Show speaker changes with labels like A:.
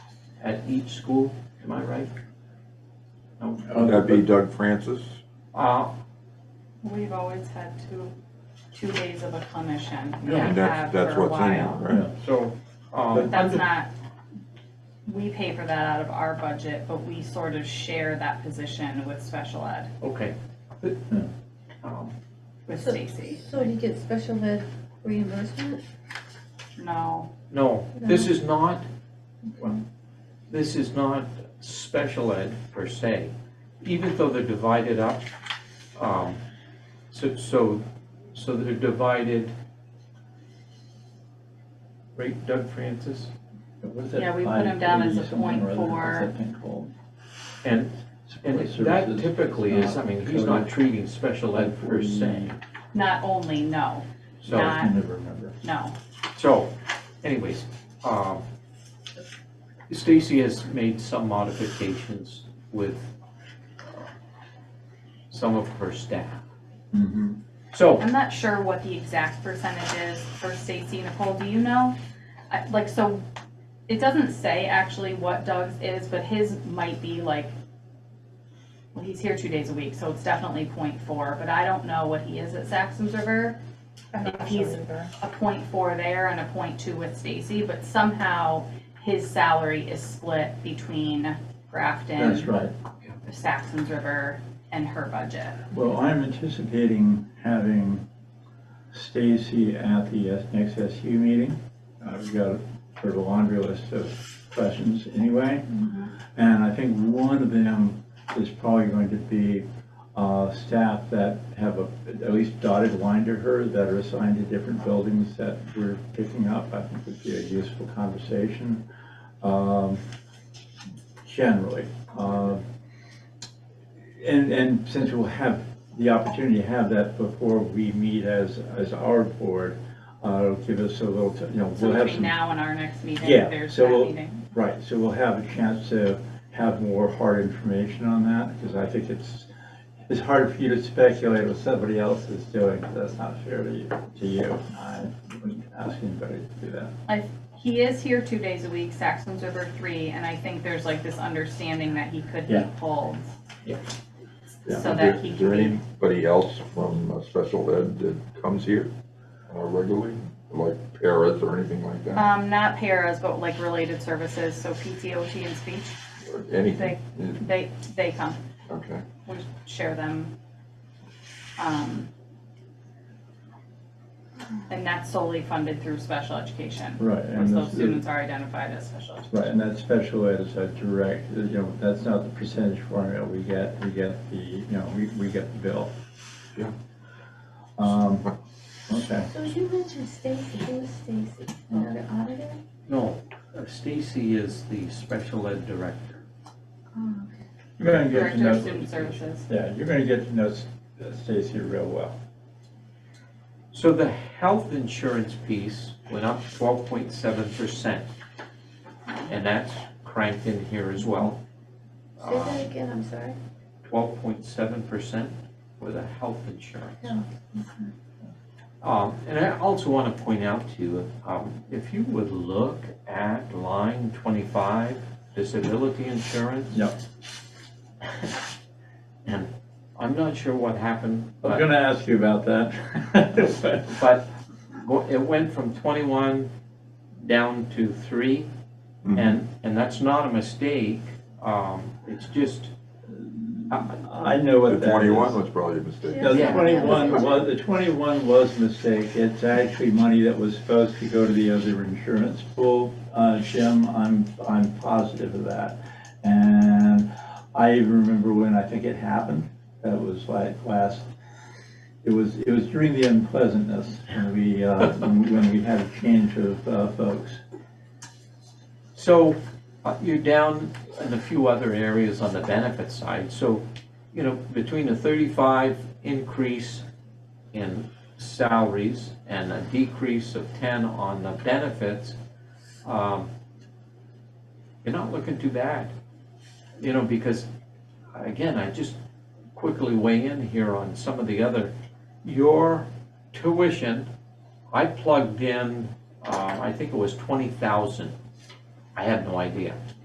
A: at each school, am I right? No.
B: That'd be Doug Francis.
A: Uh,
C: We've always had two, two days of a commission. We
A: Yeah.
B: And
C: have
B: that's, that's
C: for a
B: what's in there,
C: while.
B: right?
A: so, um,
C: That's not, we pay for that out of our budget, but we sort of share that position with special ed,
A: okay. Um,
C: with
D: So-
C: Stacy.
D: So do you get special ed reimbursement?
C: No,
A: No, this is not, well, this is not special ed per se, even though they're divided up. um, So, so, so they're divided. Right, Doug Francis?
E: What's that
C: Yeah, we put
E: five
C: them down as a
E: thirty something
C: point
E: or other? What's
C: four.
E: that thing called?
A: And, and
E: Support
A: that
E: services.
A: typically is, I mean, he's not
E: It's
A: treating special ed per se.
C: not only, no,
A: So,
C: Not-
E: I never remember.
C: no.
A: so anyways, um, Stacy has made some modifications with uh, some of her staff.
B: Mm-hmm.
A: So,
C: I'm not sure what the exact percentage is for Stacy. Nicole, do you know? I- Like, so, it doesn't say actually what Doug's is, but his might be like, well, he's here two days a week, so it's definitely point four, but I don't know what he is at Saxon's River.
D: I'm
C: If
D: not sure
C: he's-
D: either.
C: A point four there and a point two with Stacy, but somehow his salary is split between
E: That's
C: Grafton,
E: right.
C: Saxon's River, and her budget.
E: Well, I'm anticipating having Stacy at the S- next SU meeting. I've got sort of a laundry list of questions anyway. And I think one of them is probably going to be uh, staff that have a, at least dotted line to her that are assigned to different buildings that we're picking up. I think would be a useful conversation, um, generally. Uh, and, and since we'll have the opportunity to have that before we meet as, as our board, uh, it'll give us a little, t- you know,
C: So
E: we'll have
C: between
E: some.
C: now and our next meeting,
E: Yeah,
C: there's
E: so
C: that
E: we'll-
C: meeting.
E: Right, so we'll have a chance to have more hard information on that, because I think it's, it's hard for you to speculate what somebody else is doing, 'cause that's not fair to you, to you. I wouldn't ask anybody to do that.
C: He is here two days a week, Saxon's River three, and I think there's like this understanding that he could be
E: Yeah.
C: pulled.
A: Yeah.
C: So that he
B: Is
C: can
B: there
C: be,
B: anybody else from uh, special ed that comes here uh, regularly, like paras or anything like that?
C: um, not paras, but like related services, so PTOT and speech,
B: Or Anything? Yeah,
C: Uh, they, they come,
B: Okay.
C: we share them. Um, And that's solely funded through special education,
E: Right,
C: once
E: and
C: those
E: this is-
C: students are identified as special. education.
E: right, and that special ed is a direct, you know, that's not the percentage formula we get, we get the, you know, we, we get the bill.
B: Yeah.
E: Um, okay.
D: So you mentioned Stacy, who is Stacy? Another auditor?
A: no, uh, Stacy is the special ed director.
D: Oh,
E: You're gonna get to
C: Director
E: know.
C: of Student Services.
E: Yeah, you're gonna get to know S- Stacy real well.
A: So the health insurance piece went up twelve point seven percent. And that's cranked in here as well. Uh,
D: Say that again, I'm sorry.
A: Twelve point seven percent for the health insurance.
D: Yeah.
A: Um, and I also want to point out to you, um, if you would look at line twenty-five, disability insurance.
E: Yep.
A: And I'm not sure what happened,
E: I was
A: but,
E: gonna ask you about that.
A: but go- it went from twenty-one down to three. And, and that's not a mistake, um, it's just,
E: I know
B: The
E: what that
B: twenty-one
E: is.
B: was probably a mistake.
D: Yeah.
E: No, the
A: Yeah.
E: twenty-one was, the twenty-one was mistake. It's actually money that was supposed to go to the other insurance pool. Uh, Jim, I'm, I'm positive of that. And I even remember when I think it happened. That was like last, it was, it was during the unpleasantness when we, uh, when we- when we had a change of, uh, folks.
A: so uh, you're down in a few other areas on the benefit side, so, you know, between a thirty-five increase in salaries and a decrease of ten on the benefits, um, you're not looking too bad. You know, because, again, I just quickly weigh in here on some of the other, your tuition, I plugged in, uh, I think it was twenty thousand. I had no idea.